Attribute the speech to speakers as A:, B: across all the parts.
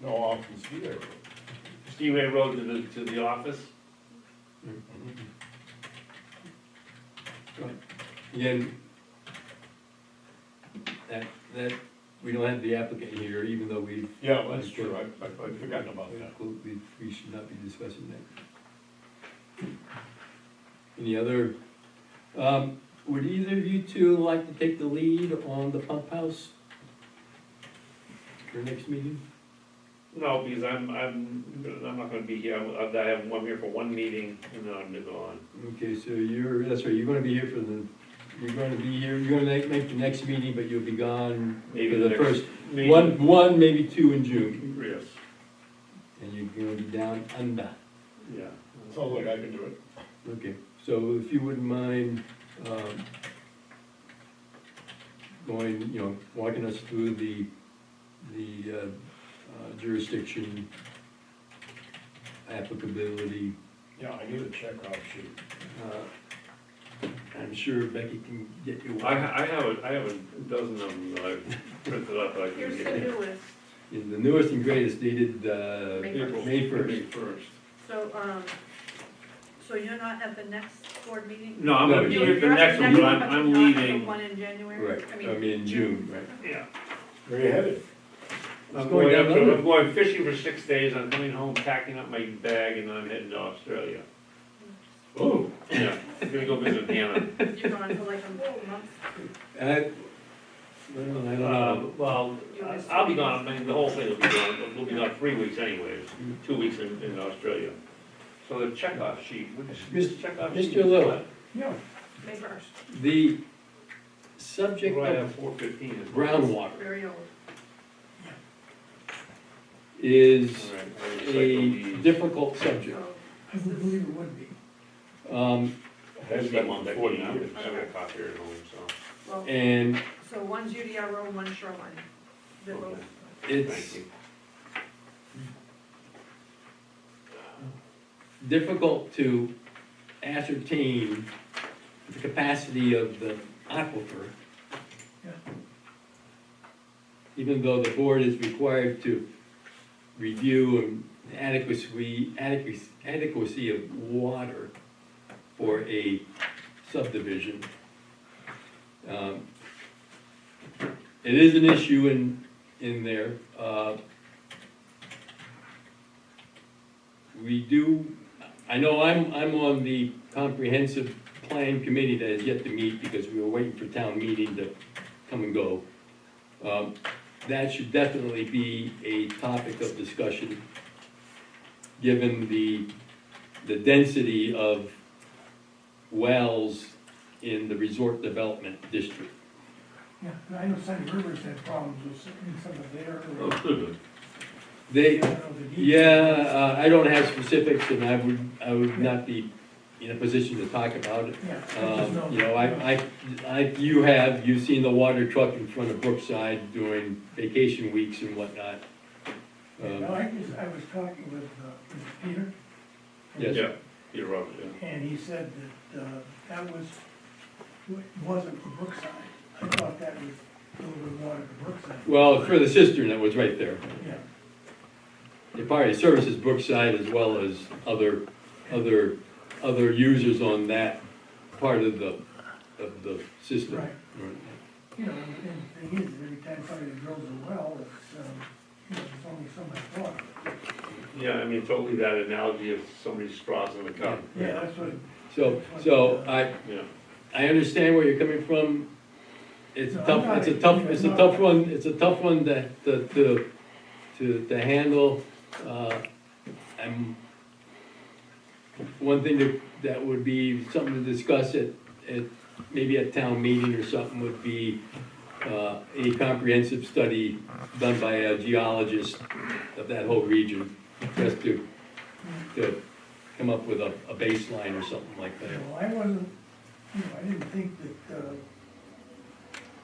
A: No, off the speedway.
B: Speedway Road to the, to the office.
C: Again, that, that, we don't have the applicant here, even though we.
A: Yeah, well, that's true, I, I I'd forgotten about that.
C: We, we should not be discussing that. Any other, um, would either of you two like to take the lead on the pump house? For next meeting?
B: No, because I'm, I'm, I'm not gonna be here, I'm, I'm I'm here for one meeting and then I'm gone.
C: Okay, so you're, that's right, you're gonna be here for the, you're gonna be here, you're gonna make, make the next meeting, but you'll be gone
B: Maybe
C: for
B: the
C: the
B: next-
C: first,
B: Maybe-
C: one, one, maybe two in June.
B: Yes,
C: And you're gonna be down under.
B: yeah.
A: Sounds like I can do it.
C: Okay, so if you wouldn't mind, um, going, you know, walking us through the, the uh, uh, jurisdiction, applicability,
A: Yeah, I need a checkoff sheet.
C: uh, I'm sure Becky can get you
B: I,
C: one
B: ha- I have, a- I have a dozen of them that I've printed up, I can
D: Here's the
B: give you.
D: newest,
C: In the newest and greatest dated, uh,
D: May
B: April-
C: May
B: May
C: first.
B: first.
D: so, um, so you're not at the next board meeting?
B: No, I'm
C: No,
B: gonna be
C: you're-
B: here for
D: You're
B: the
D: at
B: next one, but I'm,
D: but
B: I'm
D: you're not at the
B: leaving,
D: One in January?
C: Right, I mean, in June, right.
B: yeah.
A: Where you headed?
B: I'm going,
C: going down
B: up to-
C: under.
B: I'm going fishing for six days, I'm coming home, packing up my bag, and I'm heading to Australia.
C: Oh.
B: Yeah, I'm gonna go visit Hannah.
D: You're gone for like a month,
C: I, well, I don't
B: Uh,
C: know.
B: well,
D: You
B: I-
D: missed
B: I'll be
D: three
B: gone, I mean, the whole thing will be gone, but we'll be gone three weeks anyways, two weeks in, in Australia. So the checkoff sheet, what is this checkoff sheet?
C: Mr. Little.
A: Yeah.
D: May first,
C: The subject
B: Right at
C: of
B: four fifteen is.
C: groundwater
D: very old.
C: is
B: All right, I'll
C: a
B: recycle these.
C: difficult subject.
D: So,
E: I would believe it would be.
C: Um,
B: That's
A: Has
B: the
A: been
B: one that
A: forty
B: came out.
A: years.
B: I have a copier at home, so,
D: well,
C: and
D: so one's UDR road, one's shoreline. They're both-
B: Okay. thank
C: it's
B: you.
C: difficult to ascertain the capacity of the aquifer.
E: Yeah.
C: Even though the board is required to review adequacy, adequacy, adequacy of water for a subdivision. Um, It is an issue in, in there, uh, we do, I know I'm, I'm on the comprehensive plan committee that is yet to meet because we were waiting for town meeting to come and go. Um, That should definitely be a topic of discussion, given the, the density of wells in the resort development district.
E: Yeah, and I know Sunny Rivers had problems with some some of their.
C: They,
E: I don't know the details.
C: Oh, yeah, uh, I don't have specifics and I would, I would not be in a position to talk about it.
E: Yeah, I just know.
C: Um, You know, I, I, I, you have, you've seen the water truck in front of Brookside during vacation weeks and whatnot.
E: No,
C: Um,
E: I just, I was talking with, uh, with Peter.
C: Yes.
B: Yeah, you're right, yeah.
E: And he said that, uh, that was, wasn't for Brookside. I thought that was a little bit water to Brookside.
C: Well, for the cistern that was right there,
E: Yeah,
C: it probably services Brookside as well as other, other, other users on that part of the, of the system.
E: Right. you know, and and the thing is, every time somebody drills a well, it's, um, you know, there's only so much water.
B: Yeah, I mean, totally that analogy of somebody's straws in the cup,
E: Yeah, that's what,
C: So, so I,
B: yeah.
C: I understand where you're coming from. It's
E: No, I'm
C: tough,
E: not-
C: it's a tough, it's a tough one, it's a tough one to, to, to, to, to handle. Uh, I'm, one thing that, that would be something to discuss at, at, maybe at town meeting or something would be, uh, a comprehensive study done by a geologist of that whole region, just to, to come up with a, a baseline or something like
E: you
C: that.
E: know, I wasn't, you know, I didn't think that, uh,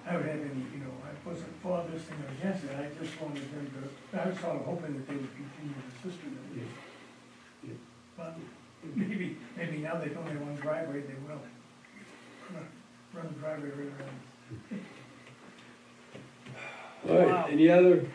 E: I would have any, you know, I wasn't for this thing or against it, I just wanted them to, I was sort of hoping that they would continue the system. that we-
C: Yeah. Yeah.
E: But maybe, maybe now they only have one driveway, they will. Run- Run the driveway right around.
C: All
D: Wow.
C: right, any other